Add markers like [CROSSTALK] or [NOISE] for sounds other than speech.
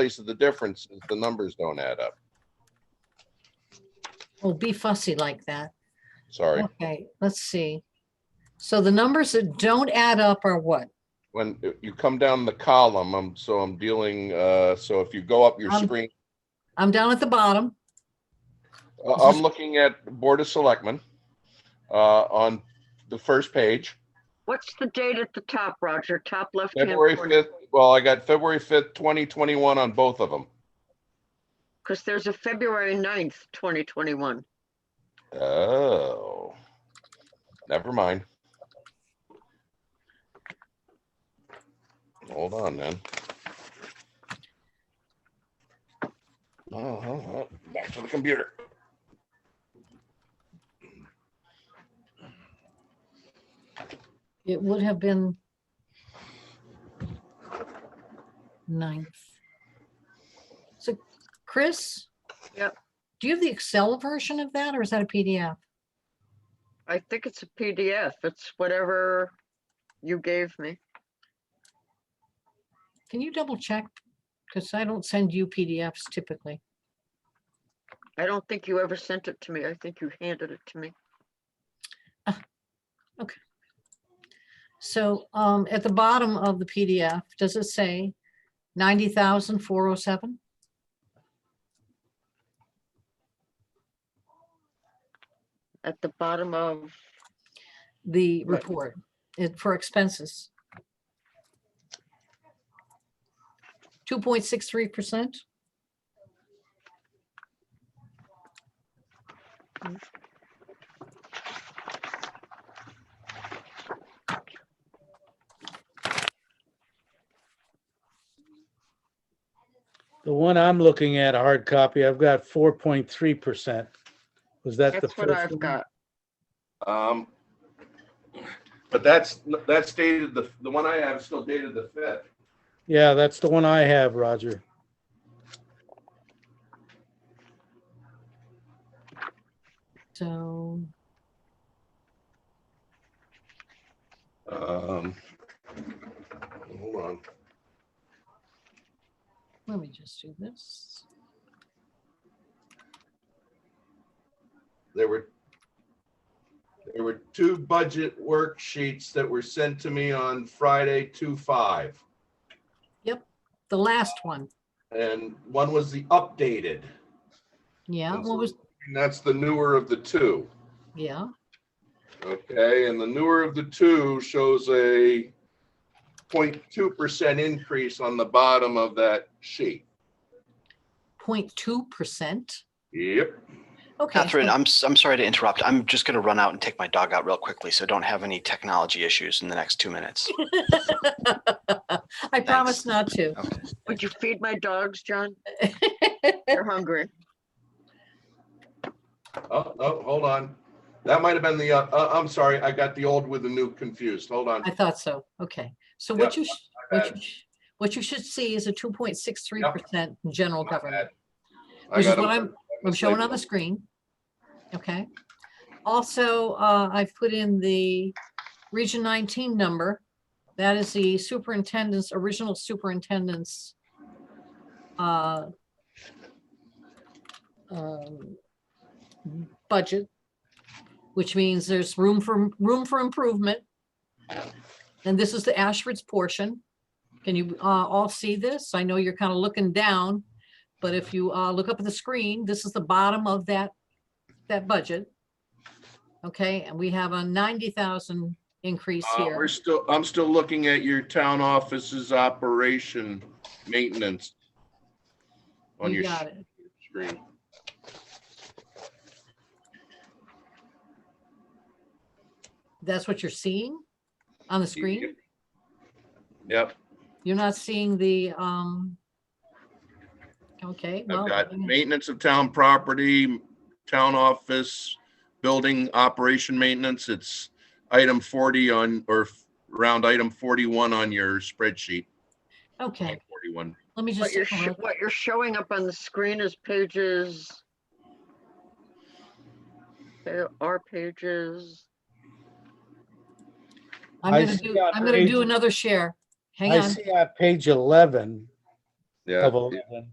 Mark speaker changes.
Speaker 1: place of the difference is the numbers don't add up.
Speaker 2: Well, Oh, be fussy like that.
Speaker 1: Sorry.
Speaker 2: Okay, let's see. So the numbers that don't add up are what?
Speaker 1: When you come down the column, I'm, so I'm dealing, uh, so if you go up your
Speaker 2: Um,
Speaker 1: screen,
Speaker 2: I'm down at the bottom.
Speaker 1: Uh, I'm looking at Board of Selectmen, uh, on the first page,
Speaker 3: What's the date at the top, Roger? Top left-hand
Speaker 1: February
Speaker 3: corner?
Speaker 1: fifth. Well, I got February fifth, twenty twenty-one on both of them.
Speaker 3: Because there's a February 9th, 2021.
Speaker 1: Oh, never mind. Hold on then. Oh, hold on. back to the computer.
Speaker 2: It would have been ninth. So Chris?
Speaker 3: Yep.
Speaker 2: Do you have the Excel version of that or is that a PDF?
Speaker 3: I think it's a PDF. It's whatever you gave me.
Speaker 2: Can you double check? Because I don't send you PDFs typically.
Speaker 3: I don't think you ever sent it to me. I think you handed it to me.
Speaker 2: So um, at the bottom of the PDF, does it say 90,407?
Speaker 3: At the bottom of,
Speaker 2: the
Speaker 3: Right.
Speaker 2: report it- for expenses. Two point six three percent,
Speaker 4: The one I'm looking at, a hard copy, I've got four point three percent. Was that the
Speaker 3: that's what
Speaker 4: first
Speaker 3: I've
Speaker 4: one?
Speaker 3: got.
Speaker 1: Um, but that's, that's dated, the, the one I have is still dated the fifth.
Speaker 4: Yeah, that's the one I have, Roger.
Speaker 2: so
Speaker 1: Um, hold on.
Speaker 2: let me just do this.
Speaker 1: there were there were two budget worksheets that were sent to me on Friday, two five.
Speaker 2: The last one,
Speaker 1: And one was the updated.
Speaker 2: yeah,
Speaker 1: And
Speaker 2: what was,
Speaker 1: And that's the newer of the two.
Speaker 2: yeah,
Speaker 1: Okay, and the newer of the two shows a 0.2 percent increase on the bottom of that sheet.
Speaker 2: 0.2 percent,
Speaker 1: Yep.
Speaker 2: okay. so-
Speaker 5: Catherine, I'm, s- I'm sorry to interrupt. I'm just going to run out and take my dog out real quickly, so don't have any technology issues in the next two minutes.
Speaker 2: I promise not to. [LAUGHS]
Speaker 5: Okay.
Speaker 3: Would you feed my dogs, John? They're hungry.
Speaker 1: Oh, oh, hold on. That might have been the, uh, uh, I'm sorry, I got the old with the new confused. Hold on.
Speaker 2: I thought so, okay. So what you, sh-
Speaker 1: My
Speaker 2: what
Speaker 1: bad.
Speaker 2: you, sh- what you should see is a two point six three percent general
Speaker 1: My
Speaker 2: government.
Speaker 1: bad. I
Speaker 2: Which is
Speaker 1: got a-
Speaker 2: what I'm- I'm showing on the screen. Okay. Also, uh, I've put in the Region 19 number. That is the superintendent's, original superintendent's uh, um, budget, which means there's room for, room for improvement. And this is the Ashford's portion. Can you uh, all see this? I know you're kind of looking down. But if you uh, look up at the screen, this is the bottom of that, that budget. Okay, and we have a 90,000 increase
Speaker 1: Uh, We're
Speaker 2: here.
Speaker 1: still, I'm still looking at your town office's operation maintenance. On
Speaker 2: You
Speaker 1: your
Speaker 2: got it.
Speaker 1: screen.
Speaker 2: That's what you're seeing on the screen?
Speaker 1: Yep,
Speaker 2: You're not seeing the, um, okay. well,
Speaker 1: I've got
Speaker 2: I mean,
Speaker 1: maintenance of town property, town office, building operation maintenance. It's item forty on, or around item forty-one on your spreadsheet.
Speaker 2: Okay,
Speaker 1: Forty-one.
Speaker 2: let me
Speaker 3: What
Speaker 2: just,
Speaker 3: you're,
Speaker 2: take a
Speaker 3: sho-
Speaker 2: look.
Speaker 3: what you're showing up on the screen is pages. There are pages.
Speaker 2: I'm
Speaker 4: I
Speaker 2: gonna
Speaker 4: see
Speaker 2: do,
Speaker 4: on
Speaker 2: I'm gonna do
Speaker 4: page-
Speaker 2: another share. Hang
Speaker 4: I
Speaker 2: on,
Speaker 4: see on page eleven,
Speaker 1: Yeah.
Speaker 4: of eleven.